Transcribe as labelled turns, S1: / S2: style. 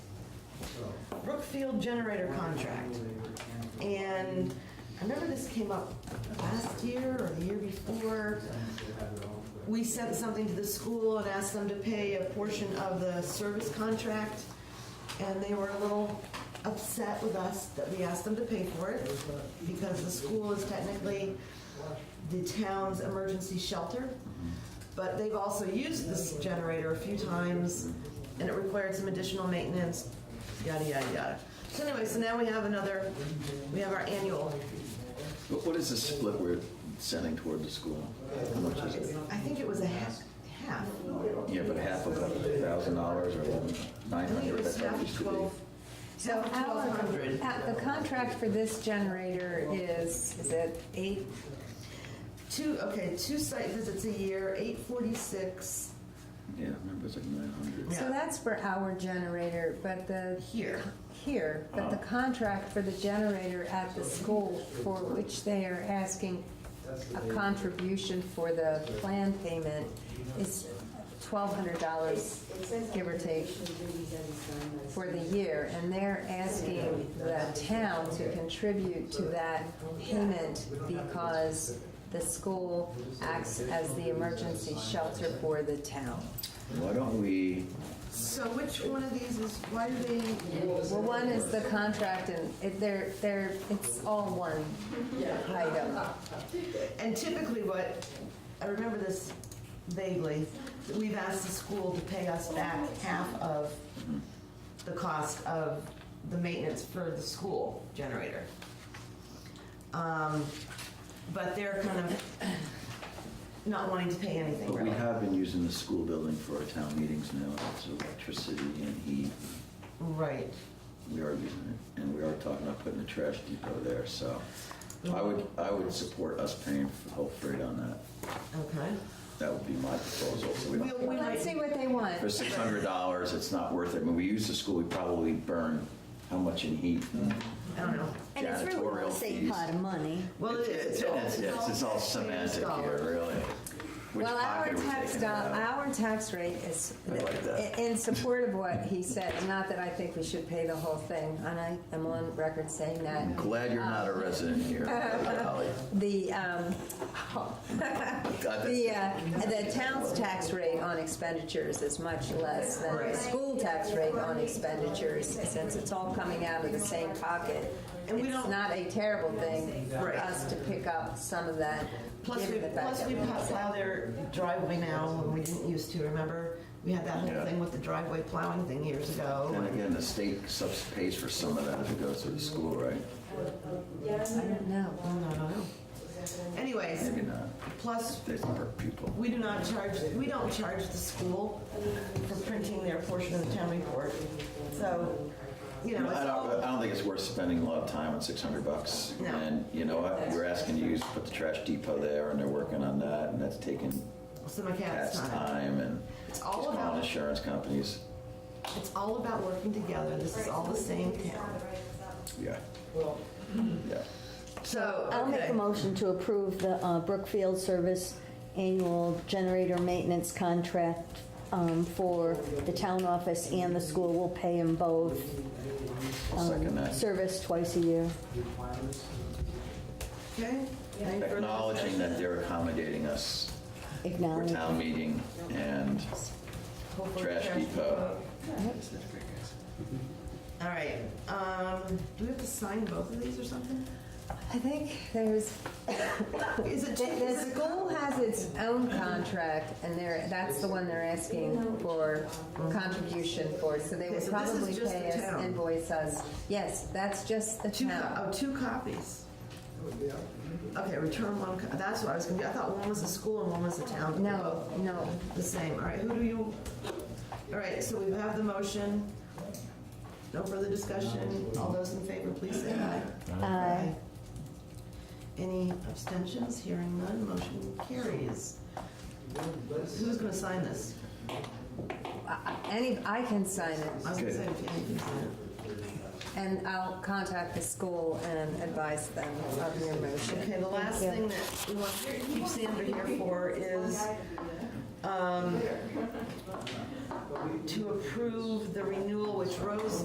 S1: Brookfield generator contract. And I remember this came up last year or the year before. We sent something to the school and asked them to pay a portion of the service contract. And they were a little upset with us that we asked them to pay for it because the school is technically the town's emergency shelter. But they've also used this generator a few times and it required some additional maintenance, yada, yada, yada. So anyway, so now we have another, we have our annual.
S2: What what is the split we're sending toward the school? How much is it?
S1: I think it was a half, half.
S2: Yeah, but half of a thousand dollars or
S1: I
S2: nine
S1: think it
S2: hundred,
S1: was
S2: that's how it used
S1: half
S2: to be.
S1: twelve.
S3: So
S1: half
S3: our,
S1: 1,200.
S3: uh, the contract for this generator is, is it eight?
S1: Two, okay, two site visits a year, eight forty-six
S2: Yeah, I remember it's like nine hundred.
S1: Yeah.
S3: So that's for our generator, but the,
S1: here.
S3: here, but the contract for the generator at the school for which they are asking a contribution for the plan payment is twelve hundred dollars, give or take, for the year, and they're asking the town to contribute to that payment because the school acts as the emergency shelter for the town.
S2: Why don't we,
S1: So which one of these is, why do they,
S3: Well, one is the contract, and it, they're, they're, it's all one item.
S1: and typically what, I remember this vaguely, that we've asked the school to pay us back half of the cost of the maintenance for the school generator. Um, But they're kind of not wanting to pay anything,
S2: but we
S1: really.
S2: have been using the school building for our town meetings now, it's electricity and heat.
S1: Right.
S2: We are using it, and we are talking about putting a trash depot there, so I would, I would support us paying for the whole freight on that.
S1: Okay.
S2: That would be my proposal, so we
S1: We'll,
S2: don't.
S1: we
S3: Let's see
S1: might,
S3: what they want.
S2: For six hundred dollars, it's not worth it. When we use the school, we probably burn how much in heat?
S1: I don't know.
S4: And it's really
S2: Janitorial
S4: a safe
S2: fees.
S4: pot of money.
S1: Well, it is.
S2: It's, it's, it's, it's all semantic here, really. Which
S3: Well, our
S2: pocket are we
S3: tax,
S2: taking
S3: do-
S2: it out of?
S3: our tax rate is,
S2: I like that.
S3: in support of what he said, not that I think we should pay the whole thing, and I am on record saying that.
S2: I'm glad you're not a
S3: Um,
S2: resident here, Holly.
S3: The, um,
S2: God,
S3: the,
S2: that's-
S3: uh, the town's tax rate on expenditures is much less than the
S1: Right.
S3: school tax rate on expenditures, since it's all coming out of the same pocket.
S1: And we
S3: It's
S1: don't-
S3: not a terrible thing for
S1: Right.
S3: us to pick up some of that,
S1: Plus, we,
S3: given the fact
S1: plus
S3: that
S1: we
S3: we
S1: plow their driveway now when we didn't used to, remember? We had that whole
S2: Yeah.
S1: thing with the driveway plowing thing years
S2: Then
S1: ago.
S2: again, the state subs pays for some of that if it goes through the school, right?
S3: I don't know.
S1: I don't know. Anyways,
S2: Maybe not.
S1: plus,
S2: They per pupil.
S1: we do not charge, we don't charge the school for printing their portion of the town report. So, you know,
S2: I
S1: it's all,
S2: don't, I don't think it's worth spending a lot of time on six hundred bucks.
S1: No.
S2: And you know what? We're asking you to put the trash depot there, and they're working on that, and that's taking
S1: so my cat's
S2: Pat's
S1: not.
S2: time and
S1: It's
S2: he's
S1: all
S2: calling
S1: about-
S2: insurance companies.
S1: It's all about working together. This is all the same town.
S2: Yeah. Yeah.
S1: So,
S4: I'll make
S1: okay.
S4: a motion to approve the uh, Brookfield Service Annual Generator Maintenance Contract um, for the town office and the school. We'll pay them both.
S2: I'll second
S4: um,
S2: that.
S4: Service twice a year.
S1: Okay? Any further
S2: Acknowledging
S1: discussion?
S2: that they're accommodating us for
S4: Acknowledge.
S2: town meeting and
S1: Hopefully
S2: trash depot.
S1: All right, um, do we have to sign both of these or something?
S3: I think there's,
S1: Is it
S3: the,
S1: two?
S3: the school has its own contract, and they're, that's the one they're asking for contribution for, so they
S1: Okay,
S3: would
S1: so this is
S3: probably
S1: just
S3: pay
S1: the
S3: us,
S1: town.
S3: invoice us. Yes, that's just the
S1: Two, co-
S3: town.
S1: oh, two copies. Okay, return one, co- that's what I was gonna, do. I thought one was the school and one was the town. but they're
S3: No, no,
S1: both The same, all right, who do you, all right, so we have the motion. No further discussion, all those in favor, please say aye.
S4: Aye.
S1: Any abstentions, hearing none, motion carries. Who's gonna sign this?
S3: I- I- any, I can sign
S1: I
S3: it,
S1: was gonna
S2: Okay.
S1: say, yeah, you can sign it.
S3: and I'll contact the school and advise them of your motion.
S1: Okay, the last
S4: you.
S1: thing that we want to keep Sandra here for is um, to approve the renewal, which Rose